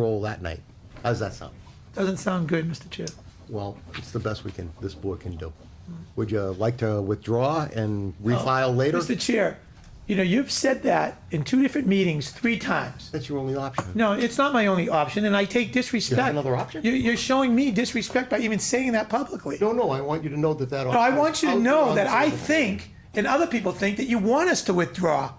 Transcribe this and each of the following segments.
roll that night. How does that sound? Doesn't sound good, Mr. Chair. Well, it's the best we can, this board can do. Hmm. Would you like to withdraw and refile later? Oh, Mr. Chair, you know, you've said that in two different meetings, three times. That's your only option. No, it's not my only option, and I take disrespect. another option? You're, you're showing me disrespect by even saying that publicly. No, no, I want you to know that that. No, I want you to know that I think, and other people think, that you want us to withdraw.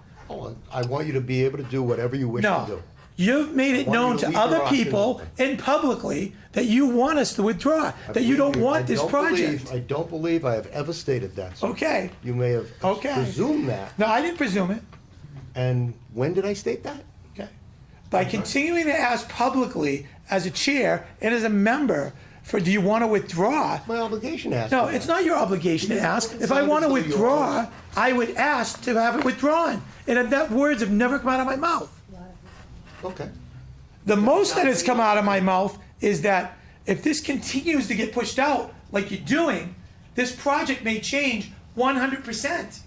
I want you to be able to do whatever you wish to No. do. You've made it Why don't known you to leave other your option people open? and publicly that you want us to withdraw, that you don't I want this don't believe- project. I don't believe I have ever stated that. sir. Okay. You may have Okay. presumed that. No, I didn't presume it. And when did I state that? Okay. By continuing to ask publicly as a chair and as a member for, do you want to withdraw? My obligation asked. No, for it's that. not your obligation to ask. If I want to withdraw, I would ask to have it withdrawn. And that words have never come out of my mouth. Okay. The most that has come out of my mouth is that if this continues to get pushed out like you're doing, this project may change 100%.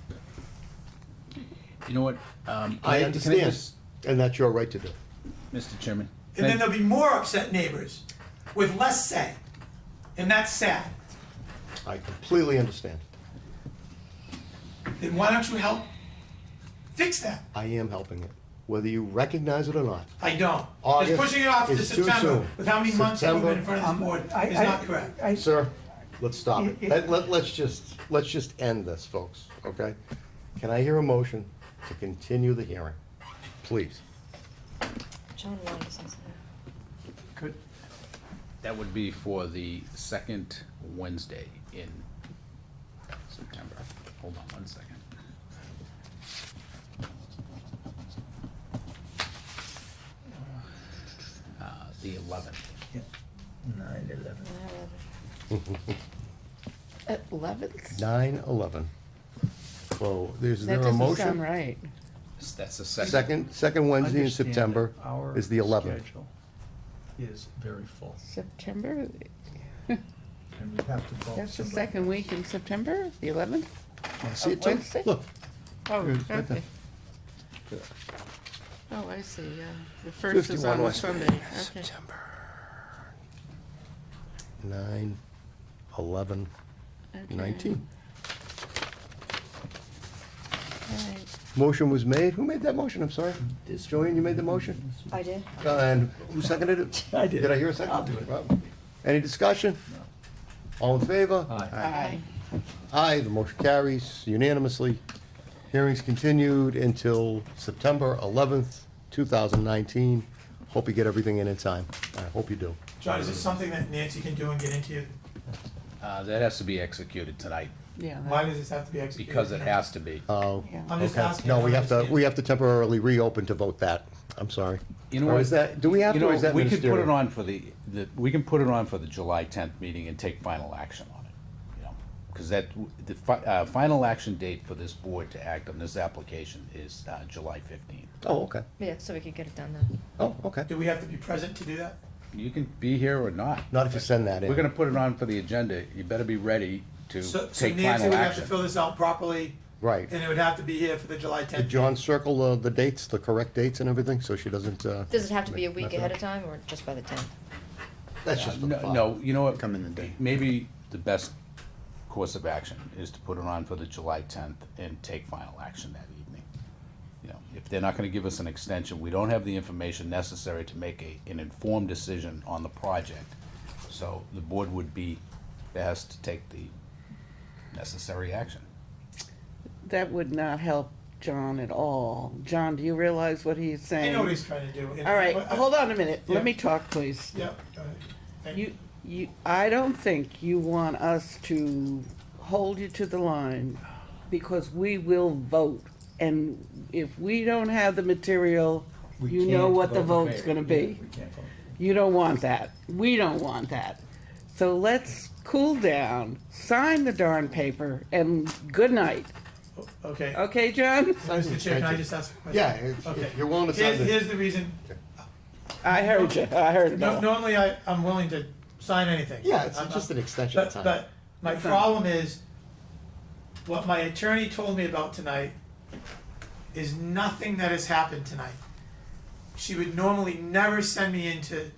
You know what? um, can I can understand, just- and that's your right to do. Mr. Chairman. And then can I- there'll be more upset neighbors with less say. And that's sad. I completely understand. Then why don't you help fix that? I am helping it, whether you recognize it or not. I don't. August Just pushing it off to is too September soon. with how many months we've been in front of this September- board I- is um, I- not correct. I- Sir, let's stop it. It- it- Let, let, let's just, let's just end this, folks, okay? Can I hear a motion to continue the hearing? Please. John wanted to say something. That would be for the second Wednesday in September. Hold on one second. Uh, The eleventh. At eleventh? Nine eleven. So, is there That a doesn't sound motion? right. That's the second. Second, second Wednesday in understand that September our is the eleventh. schedule Is very full, September, and we have to call that's the somebody. second week in September, the eleventh? See it, Tim? Wednesday? Look, Oh, Here's right okay. there. Oh, I see, yeah. The first is 51 on a West Sunday, Main, okay. September. Nine, eleven, okay. nineteen. All right. Motion was made. Who made that motion? I'm sorry. Joanne, you made the motion? I did. Uh, And who seconded it? I did. Did I hear a 2nd I'll do it. Rob? Any discussion? All in favor? Aye. Aye. Aye, the motion carries unanimously. Hearings continued until September 11th, 2019. Hope you get everything in in time. I hope you do. John, is this something that Nancy can do and get into? you? Uh, that has to be executed tonight Yeah, that- Why does this have to be executed? because it has to be. Oh, Yeah. I'm just okay. asking, No, I we have to, understand. we have to temporarily reopen to vote that. I'm sorry. You know Or what? is that, do we have You to, or know, is that we could put it ministerial? on for the, the, we can put it on for the July tenth meeting and take final action on it, you know? Because that, the fi- uh, final action date for this board to act on this application is, uh, July fifteenth. Oh, okay. Yeah, so we could get it done then. Oh, okay. Do we have to be present to do that? You can be here or not. Not if you send that in. We're gonna put it on for the agenda. You better be ready to So, so take Nancy would final have to fill action. this out properly. Right. And it would have to be here for the July Did tenth. John circle uh, the dates, the correct dates and everything, so she doesn't, uh, Does it have to be a Not week bad. ahead of time or just by the tenth? that's just for the Uh, No, file. no, you know what? Come in the day. Maybe the best course of action is to put it on for the July tenth and take final action that evening. You know, if they're not gonna give us an extension, we don't have the information necessary to make a, an informed decision on the project. So the board would be best to take the necessary action. that would not help John at all. John, do you realize what he's I saying? know what he's trying to do. and- All right, but- hold on a minute, Yeah. let me talk, please. Yeah, go ahead. Thank You, you, I don't think you want us to hold you to the line because we will vote. And if we don't have the material, We you know can't what the vote in vote's favor. gonna Yeah, be. we can't vote. You don't want that. We don't want that. So let's cool down, sign the darn paper, and good night. Okay. Okay, John? Mr. Chair, can I just ask a question? Yeah, if- Okay. if you're willing to Here's, send it. here's the reason. I heard you, I heard No, about it. normally I, I'm willing to sign anything. Yeah, it's I'm- just an extension of But, time. but my Okay. problem is, what my attorney told me about tonight is nothing that has happened tonight. she would normally never send me into